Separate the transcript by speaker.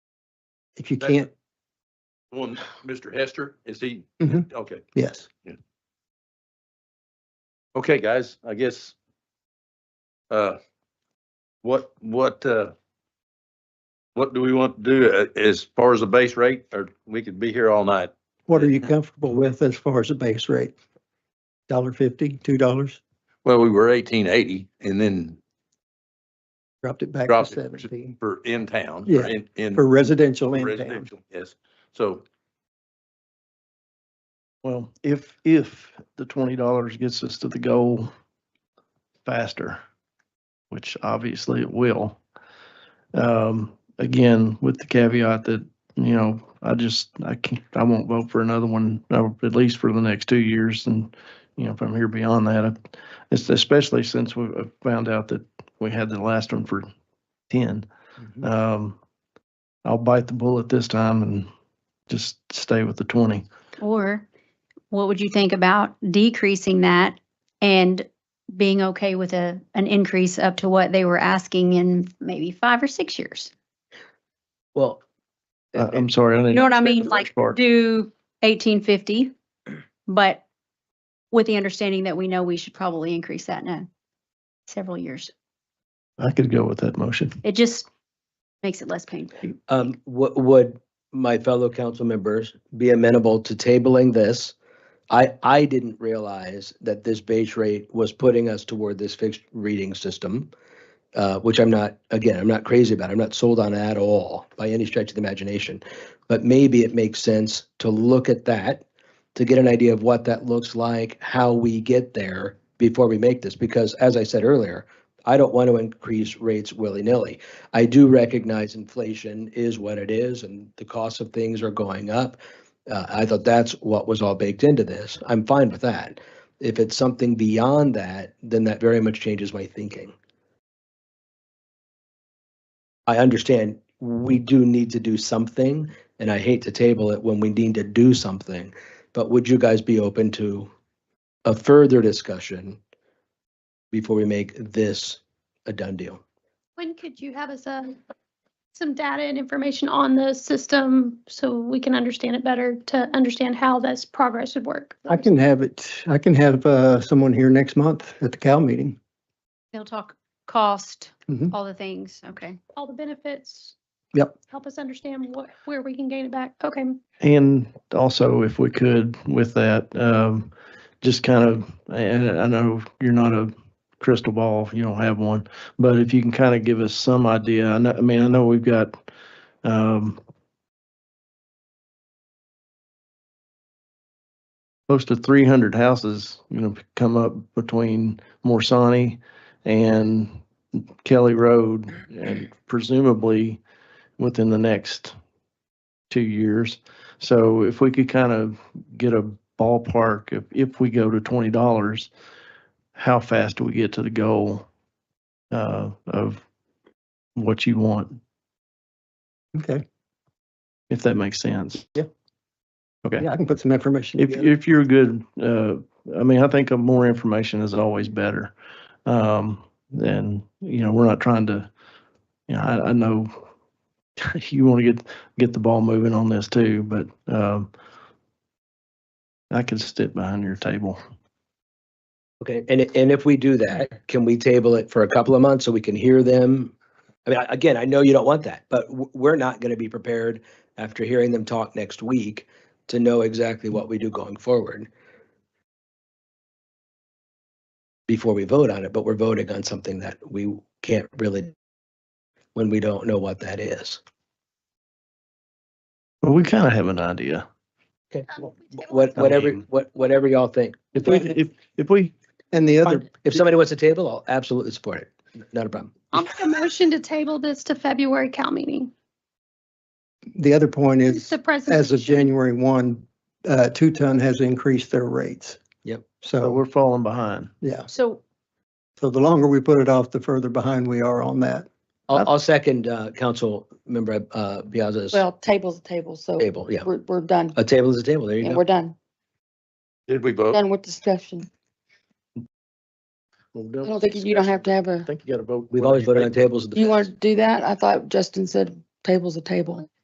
Speaker 1: If you
Speaker 2: That-
Speaker 1: can't,
Speaker 2: One, Mr. Hester, is he?
Speaker 1: Mhm.
Speaker 2: Okay,
Speaker 1: yes.
Speaker 2: okay, guys, I guess. Uh, what, what, uh, what do we want to do uh, as far as the base rate, or we could be here all night?
Speaker 1: What are you comfortable with as far as the base rate? Dollar fifty, two dollars,
Speaker 2: Well, we were eighteen eighty and then
Speaker 1: dropped it back to
Speaker 2: dropped it
Speaker 1: seventeen
Speaker 2: for in town. or
Speaker 1: Yeah,
Speaker 2: in- In.
Speaker 1: for residential in town.
Speaker 2: residential, Yes, so,
Speaker 3: Well, if, if the twenty dollars gets us to the goal faster, which obviously it will. Um, again, with the caveat that, you know, I just, I can't, I won't vote for another one, uh, at least for the next two years. And, you know, if I'm here beyond that, I- it's especially since we uh, found out that we had the last one for ten.
Speaker 1: Mm-hmm.
Speaker 3: Um, I'll bite the bullet this time and just stay with the twenty.
Speaker 4: Or what would you think about decreasing that and being okay with a, an increase up to what they were asking in maybe five or six years?
Speaker 5: Well.
Speaker 3: I-
Speaker 5: and-
Speaker 3: I'm sorry. I
Speaker 4: You
Speaker 3: didn't-
Speaker 4: know what I
Speaker 3: the
Speaker 4: mean?
Speaker 3: first
Speaker 4: Like
Speaker 3: part.
Speaker 4: do eighteen fifty, but with the understanding that we know we should probably increase that in a- several years.
Speaker 3: I could go with that motion.
Speaker 4: It just makes it less painful.
Speaker 5: Um, what would my fellow council members be amenable to tabling this? I, I didn't realize that this base rate was putting us toward this fixed reading system, uh, which I'm not, again, I'm not crazy about. I'm not sold on at all by any stretch of the imagination. But maybe it makes sense to look at that, to get an idea of what that looks like, how we get there before we make this. Because as I said earlier, I don't want to increase rates willy-nilly. I do recognize inflation is what it is and the cost of things are going up. Uh, I thought that's what was all baked into this. I'm fine with that. If it's something beyond that, then that very much changes my thinking. I understand we do need to do something and I hate to table it when we need to do something. But would you guys be open to a further discussion before we make this a done deal?
Speaker 6: When could you have us, uh, some data and information on the system so we can understand it better to understand how this progress would work?
Speaker 1: I can have it, I can have uh, someone here next month at the Cal meeting.
Speaker 4: They'll talk cost,
Speaker 1: Mhm.
Speaker 4: all the things. Okay.
Speaker 6: All the benefits.
Speaker 1: Yep.
Speaker 6: Help us understand what, where we can gain it back. Okay,
Speaker 3: And also, if we could, with that, um, just kind of, and I know you're not a crystal ball, you don't have one, but if you can kind of give us some idea, I know, I mean, I know we've got, um, close to three hundred houses, you know, come up between Morsani and Kelly Road, and presumably within the next two years. So if we could kind of get a ballpark, if, if we go to twenty dollars, how fast do we get to the goal uh, of what you want,
Speaker 1: Okay,
Speaker 3: if that makes sense?
Speaker 1: Yeah.
Speaker 3: Okay.
Speaker 1: yeah, I can put some information
Speaker 3: If,
Speaker 1: together.
Speaker 3: if you're good, uh, I mean, I think more information is always better. Um, and, you know, we're not trying to, you know, I, I know you want to get, get the ball moving on this too, but, um, I could sit behind your table.
Speaker 5: Okay, and, i- and if we do that, can we table it for a couple of months so we can hear them? I mean, I- again, I know you don't want that, but w- we're not going to be prepared after hearing them talk next week to know exactly what we do going forward before we vote on it, but we're voting on something that we can't really, when we don't know what that is.
Speaker 3: Well, we kind of have an idea.
Speaker 5: Okay,
Speaker 6: Um,
Speaker 5: wha-
Speaker 6: we table
Speaker 5: what,
Speaker 3: I
Speaker 5: whatever,
Speaker 3: mean-
Speaker 5: what, whatever y'all think.
Speaker 3: If we, if, if we,
Speaker 1: And the other,
Speaker 5: If somebody wants to table, I'll absolutely support it. Not a problem.
Speaker 6: I'll make a motion to table this to February Cal meeting.
Speaker 1: the other point is,
Speaker 6: The
Speaker 1: as of
Speaker 6: presentation.
Speaker 1: January one, uh, Two Ton has increased their rates.
Speaker 5: Yep.
Speaker 3: so
Speaker 1: So,
Speaker 3: uh, we're falling behind.
Speaker 1: yeah,
Speaker 4: So
Speaker 1: so the longer we put it off, the further behind we are on that.
Speaker 5: I'll, I'll second, uh, council member, uh, Piazza's
Speaker 7: Well, table's a table, so
Speaker 5: table, yeah.
Speaker 7: we're, we're done.
Speaker 5: A table is a table, there you oh.
Speaker 7: And
Speaker 5: go.
Speaker 7: we're done,
Speaker 2: did we vote?
Speaker 7: done with discussion. I don't think you you don't have to have
Speaker 3: I
Speaker 7: a,
Speaker 3: think you got to vote.
Speaker 5: We've always voted on tables. in the
Speaker 7: you want
Speaker 5: past.
Speaker 7: to do that? I thought Justin said table's a table.